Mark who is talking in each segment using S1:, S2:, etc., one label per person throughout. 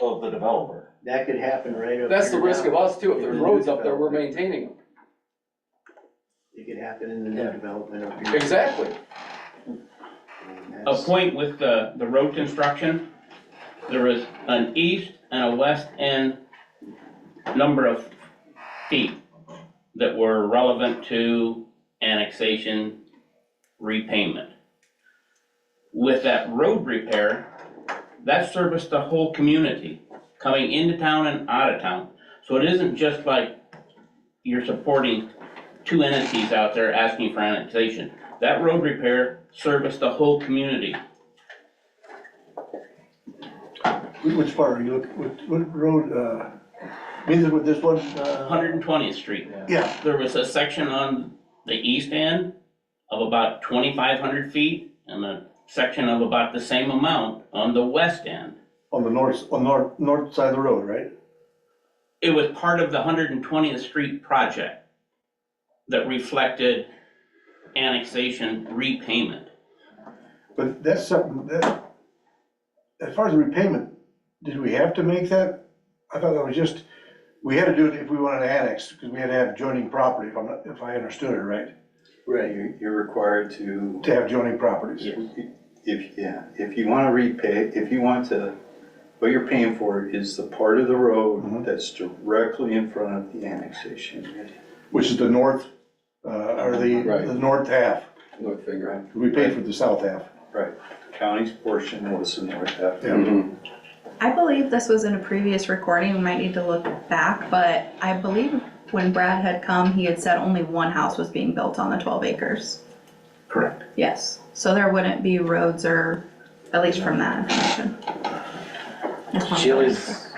S1: of the developer.
S2: That could happen right up.
S3: That's the
S2: here
S3: risk
S2: now.
S3: of us too, if there's roads up there, we're
S2: Yeah.
S3: maintaining them.
S2: It could happen in the new
S3: Yeah.
S2: development up here.
S3: Exactly.
S2: And
S4: a
S2: that's-
S4: point with the, the road construction, there is an east and a west end number of feet that were relevant to annexation repayment. With that road repair, that serviced the whole community, coming into town and out of town. So it isn't just like you're supporting two entities out there asking for annexation. That road repair serviced the whole community.
S5: Which part are you looking, what, what road, uh, means it with this one? uh,
S4: 120th Street.
S5: Yeah,
S4: There was a section on the east end of about 2,500 feet and a section of about the same amount on the west end.
S5: on the north, on north, north side of the road, right?
S4: It was part of the 120th Street project that reflected annexation repayment.
S5: But that's something, that, as far as the repayment, did we have to make that? I thought that was just, we had to do it if we wanted to annex, because we had to have joining property, if I'm not, if I understood it right,
S6: Right, you're, you're required to,
S5: to have joining properties.
S4: Yeah.
S6: if, yeah, if you wanna repay, if you want to, what you're paying for is the part of the
S5: Mhm.
S6: road that's directly in front of the annexation.
S5: Which is the north, uh, or the,
S3: Right.
S5: the north half,
S3: Look, finger.
S5: we paid for the south half.
S6: Right, county's portion was the north half.
S5: Yeah.
S7: I believe this was in a previous recording, we might need to look back, but I believe when Brad had come, he had said only one house was being built on the twelve acres.
S4: Correct.
S7: Yes, so there wouldn't be roads or, at least from that information. Just wanted to-
S8: Chili's,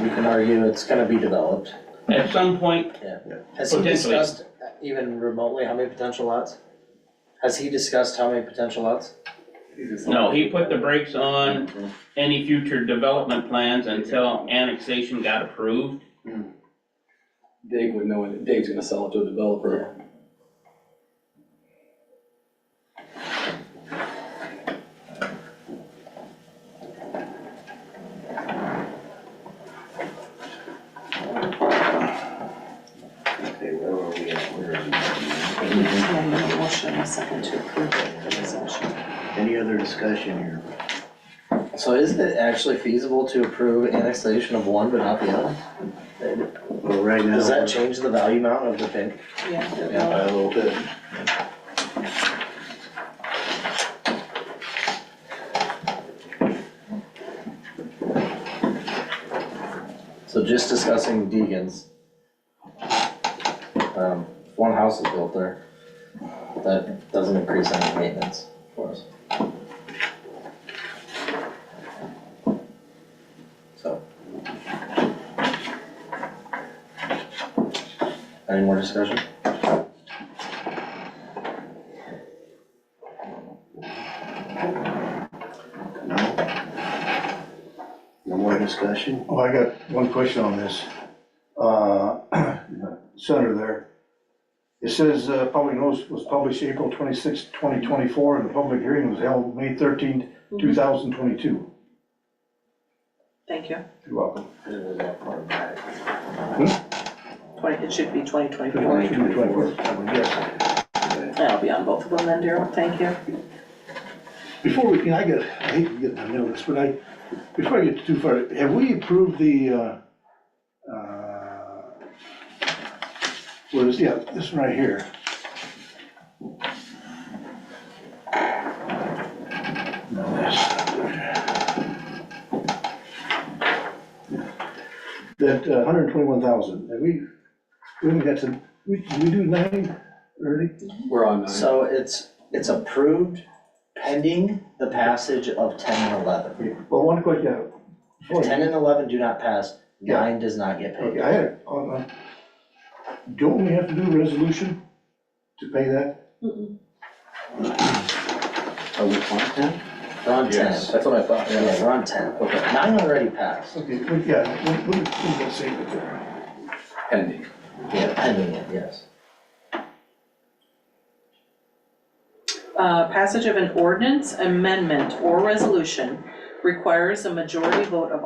S8: you can argue it's gonna be developed.
S4: At some point,
S8: Has he
S4: Potentially.
S8: discussed uh, even remotely how many potential lots? Has he discussed how many potential lots?
S4: no, he put the brakes on any future development plans until annexation got approved.
S3: Dave would know, it. Dave's gonna sell it to a developer.
S1: Okay, where are we at? Where are we?
S9: Yeah, we need a motion and a second to approve it, the resolution.
S2: Any other discussion here?
S8: So is it actually feasible to approve annexation of one but not the other?
S2: Well, right now.
S8: Does that change the value amount of the thing?
S9: Yeah, it
S8: Yeah.
S6: By
S9: will.
S6: a little bit.
S8: So just discussing Deegan's. Um, one house is built there. That doesn't increase any maintenance for us. So. Any more discussion?
S2: No? No more discussion?
S5: Well, Oh, I got one question on this. Uh, Senator there, it says uh, public notice was published April 26, 2024, and the public hearing was held May 13,
S9: Mm-hmm.
S5: 2022.
S9: Thank you.
S5: You're welcome.
S9: Twenty, it should be twenty twenty-four.
S5: 2024, yes.
S9: That'll be on both of them then, Daryl, thank you.
S5: Before we can, I get, I hate to get, I know this, but I, before I get too far, have we approved the, uh, uh, what is, yeah, this one right here. No, that's not there. That uh, hundred and twenty-one thousand, have we, we haven't got to, we, did we do nine early?
S3: We're on uh, nine.
S8: So it's, it's approved pending the passage of ten and eleven.
S5: Well, one question.
S8: If ten and eleven do not pass,
S5: Yeah.
S8: nine does not get paid.
S5: Okay, I had, it on, on, don't we have to do a resolution to pay that?
S8: Are we on ten? We're on ten.
S6: Yes.
S8: That's what I thought. Yeah, we're on ten. Nine already passed.
S5: Okay, well, yeah, we, we, we can save it there.
S3: Pending.
S8: Yeah, pending it, yes.
S9: Uh, passage of an ordinance, amendment, or resolution requires a majority vote of